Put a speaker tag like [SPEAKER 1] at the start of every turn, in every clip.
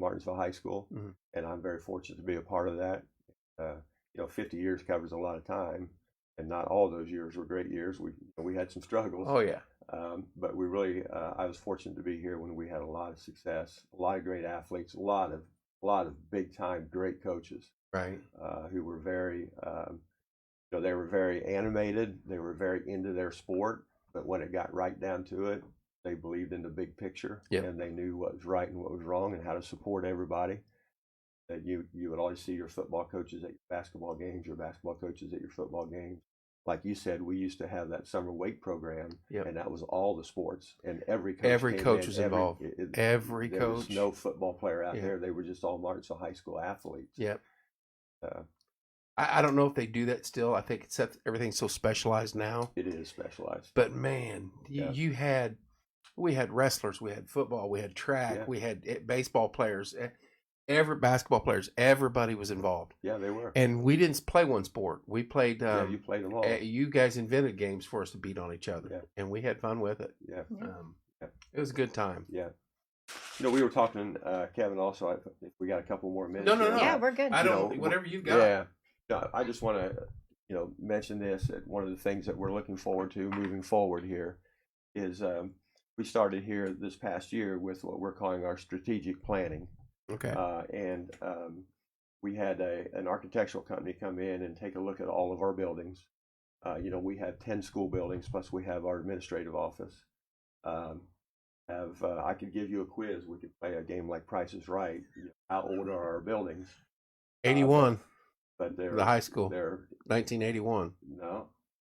[SPEAKER 1] Burnsville High School,
[SPEAKER 2] Mhm.
[SPEAKER 1] and I'm very fortunate to be a part of that. Uh, you know, 50 years covers a lot of time, and not all those years were great years. We we had some struggles,
[SPEAKER 2] Oh yeah.
[SPEAKER 1] um, but we really uh, I was fortunate to be here when we had a lot of success, a lot of great athletes, a lot of a lot of big time great coaches
[SPEAKER 2] Right.
[SPEAKER 1] uh, who were very, um, you know, they were very animated. They were very into their sport, but when it got right down to it, they believed in the big picture
[SPEAKER 2] Yeah.
[SPEAKER 1] and they knew what was right and what was wrong and how to support everybody. That you you would always see your football coaches at your basketball games, your basketball coaches at your football games. Like you said, we used to have that summer weight program,
[SPEAKER 2] Yep.
[SPEAKER 1] and that was all the sports, and every coach
[SPEAKER 2] Every
[SPEAKER 1] came
[SPEAKER 2] coach
[SPEAKER 1] in,
[SPEAKER 2] was
[SPEAKER 1] every-
[SPEAKER 2] involved.
[SPEAKER 1] it- it-
[SPEAKER 2] Every
[SPEAKER 1] there
[SPEAKER 2] coach.
[SPEAKER 1] was no football player out
[SPEAKER 2] Yeah.
[SPEAKER 1] there; they were just all Martinsville high school athletes.
[SPEAKER 2] Yep.
[SPEAKER 1] Uh,
[SPEAKER 2] I, I don't know if they do that still. I think it's that everything's so specialized now.
[SPEAKER 1] It is specialized.
[SPEAKER 2] But man, you,
[SPEAKER 1] Yeah.
[SPEAKER 2] you had we had wrestlers, we had football, we had track,
[SPEAKER 1] Yeah.
[SPEAKER 2] we had eh, baseball players, eh, every basketball players. Everybody was involved,
[SPEAKER 1] Yeah, they were.
[SPEAKER 2] and we didn't play one sport. We played.
[SPEAKER 1] yeah,
[SPEAKER 2] Um,
[SPEAKER 1] you played them all.
[SPEAKER 2] eh, you guys invented games for us to beat on each other,
[SPEAKER 1] Yeah.
[SPEAKER 2] and we had fun with it.
[SPEAKER 1] yeah,
[SPEAKER 3] Yeah.
[SPEAKER 2] Um,
[SPEAKER 1] Yeah.
[SPEAKER 2] It was a good time.
[SPEAKER 1] yeah. You know, we were talking, uh, Kevin. Also, I, if we got a couple more minutes.
[SPEAKER 2] No, no,
[SPEAKER 1] here.
[SPEAKER 2] no.
[SPEAKER 3] Yeah, we're good.
[SPEAKER 2] Oh, I
[SPEAKER 1] You
[SPEAKER 2] don't.
[SPEAKER 1] know,
[SPEAKER 2] whatever you've got.
[SPEAKER 1] Yeah. Uh, No, I just want to, you know, mention this. That one of the things that we're looking forward to moving forward here is um, we started here this past year with what we're calling our strategic planning,
[SPEAKER 2] Okay.
[SPEAKER 1] uh, and um, we had a, an architectural company come in and take a look at all of our buildings. Uh, you know, we have 10 school buildings, plus we have our administrative office. Um, have uh, I could give you a quiz. We could play a game like Price is Right. You know, How old are our buildings? Uh,
[SPEAKER 2] Eighty-one.
[SPEAKER 1] But they're
[SPEAKER 2] the high school.
[SPEAKER 1] they're
[SPEAKER 2] 1981.
[SPEAKER 1] no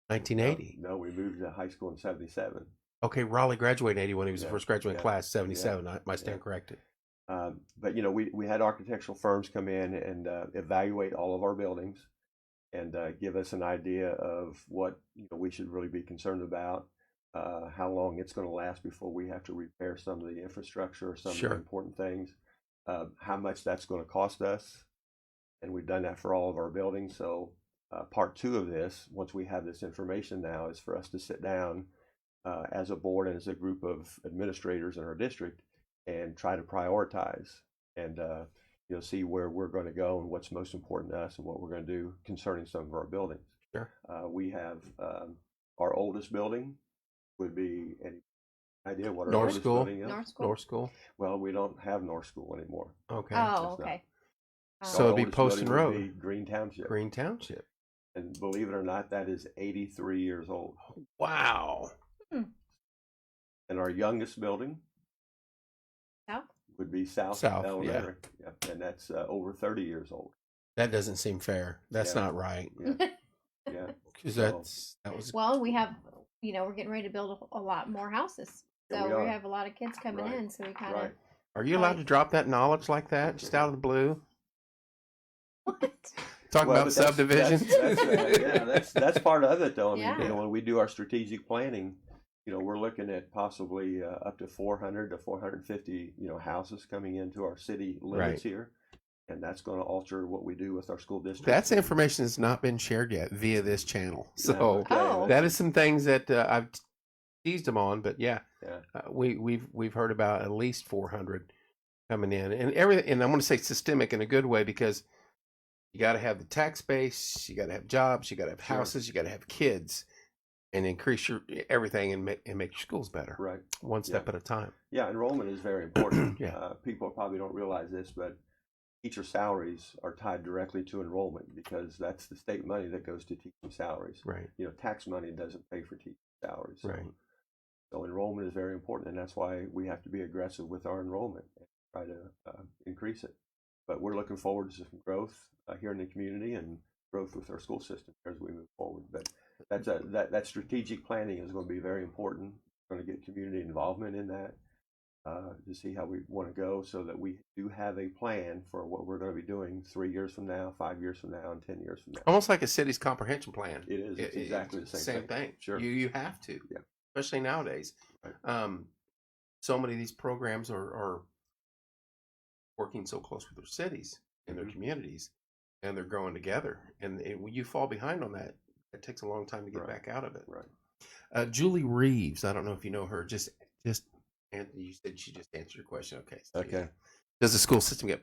[SPEAKER 2] 1980.
[SPEAKER 1] No, we moved to high school in '77.
[SPEAKER 2] Okay, Raleigh graduated in 81. He was
[SPEAKER 1] Yeah,
[SPEAKER 2] the first graduating
[SPEAKER 1] yeah,
[SPEAKER 2] class, 77. I, my stand
[SPEAKER 1] yeah.
[SPEAKER 2] corrected.
[SPEAKER 1] Um, but you know, we, we had architectural firms come in and uh, evaluate all of our buildings and uh, give us an idea of what you know we should really be concerned about, uh, how long it's going to last before we have to repair some of the infrastructure or some of
[SPEAKER 2] Sure.
[SPEAKER 1] the important things, uh, how much that's going to cost us, and we've done that for all of our buildings. So uh, part two of this, once we have this information now, is for us to sit down uh, as a board and as a group of administrators in our district and try to prioritize and uh, you know see where we're going to go and what's most important to us and what we're going to do concerning some of our buildings.
[SPEAKER 2] Sure.
[SPEAKER 1] Uh, we have um, our oldest building would be any idea what our
[SPEAKER 2] North
[SPEAKER 1] oldest
[SPEAKER 2] School?
[SPEAKER 1] building is?
[SPEAKER 3] North School.
[SPEAKER 2] North School.
[SPEAKER 1] Well, we don't have North School anymore.
[SPEAKER 2] Okay.
[SPEAKER 3] Oh,
[SPEAKER 1] That's not-
[SPEAKER 3] okay. Um,
[SPEAKER 2] So
[SPEAKER 1] Our
[SPEAKER 2] it'd be
[SPEAKER 1] oldest
[SPEAKER 2] Poston
[SPEAKER 1] building would
[SPEAKER 2] Road.
[SPEAKER 1] be Green Township.
[SPEAKER 2] Green Township.
[SPEAKER 1] And believe it or not, that is 83 years old.
[SPEAKER 2] Wow.
[SPEAKER 1] And our youngest building
[SPEAKER 3] South?
[SPEAKER 1] would be South,
[SPEAKER 2] South, yeah.
[SPEAKER 1] Elementary. Yeah. And that's uh, over 30 years old.
[SPEAKER 2] That doesn't seem fair. That's
[SPEAKER 1] Yeah.
[SPEAKER 2] not right.
[SPEAKER 1] Yeah. yeah.
[SPEAKER 2] 'Cause
[SPEAKER 1] So-
[SPEAKER 2] that's that was
[SPEAKER 3] well, we have, you know, we're getting ready to build a, a lot more houses.
[SPEAKER 1] Yeah,
[SPEAKER 3] So
[SPEAKER 1] we
[SPEAKER 3] we,
[SPEAKER 1] are.
[SPEAKER 3] have a lot of kids coming
[SPEAKER 1] Right.
[SPEAKER 3] in. So we kind of.
[SPEAKER 1] Right.
[SPEAKER 2] Are you allowed
[SPEAKER 3] right.
[SPEAKER 2] to drop that knowledge like that just out of the blue?
[SPEAKER 3] What?
[SPEAKER 2] Talking
[SPEAKER 1] Well,
[SPEAKER 2] about
[SPEAKER 1] but that's- that's-
[SPEAKER 2] subdivisions.
[SPEAKER 1] that's, uh, yeah, that's that's part of it, though. I mean, you
[SPEAKER 3] Yeah.
[SPEAKER 1] know, when we do our strategic planning, you know, we're looking at possibly uh, up to 400 to 450, you know, houses coming into our city limits here, and that's going to alter what we do with our school district.
[SPEAKER 2] That's information that's not been shared yet via this channel.
[SPEAKER 1] Yeah,
[SPEAKER 2] So
[SPEAKER 1] okay,
[SPEAKER 3] Oh.
[SPEAKER 2] that is some things that uh, I've teased them on, but yeah,
[SPEAKER 1] Yeah.
[SPEAKER 2] Uh, we we've we've heard about at least 400 coming in, and everything. And I want to say systemic in a good way because you got to have the tax base, you got to have jobs, you got to have
[SPEAKER 1] Sure.
[SPEAKER 2] houses, you got to have kids, and increase your e, everything and make and make your schools better,
[SPEAKER 1] right.
[SPEAKER 2] one step
[SPEAKER 1] Yeah.
[SPEAKER 2] at a time.
[SPEAKER 1] Yeah, enrollment is very important.
[SPEAKER 2] Yeah.
[SPEAKER 1] uh, people probably don't realize this, but teacher salaries are tied directly to enrollment because that's the state money that goes to teaching salaries.
[SPEAKER 2] Right,
[SPEAKER 1] You know, tax money doesn't pay for teaching salaries. So
[SPEAKER 2] right.
[SPEAKER 1] So enrollment is very important, and that's why we have to be aggressive with our enrollment and try to uh, increase it. But we're looking forward to some growth uh, here in the community and growth with our school system as we move forward. But that's a, that that strategic planning is going to be very important. We're going to get community involvement in that uh, to see how we want to go, so that we do have a plan for what we're going to be doing three years from now, five years from now, and ten years from now.
[SPEAKER 2] Almost like a city's comprehension plan.
[SPEAKER 1] It is it's
[SPEAKER 2] It- it-
[SPEAKER 1] exactly the same,
[SPEAKER 2] e, thing.
[SPEAKER 1] Sure.
[SPEAKER 2] You you have to.
[SPEAKER 1] Yeah.
[SPEAKER 2] Especially nowadays.
[SPEAKER 1] Right.
[SPEAKER 2] Um, so many of these programs are, are working so close with their cities and their
[SPEAKER 1] Mhm.
[SPEAKER 2] communities and they're growing together. And it, when you fall behind on that, it takes a long time to get
[SPEAKER 1] Right.
[SPEAKER 2] back out of it.
[SPEAKER 1] Right.
[SPEAKER 2] Uh, Julie Reeves, I don't know if you know her, just just and you said she just answered your question. Okay. so yeah.
[SPEAKER 1] Okay.
[SPEAKER 2] does the school system get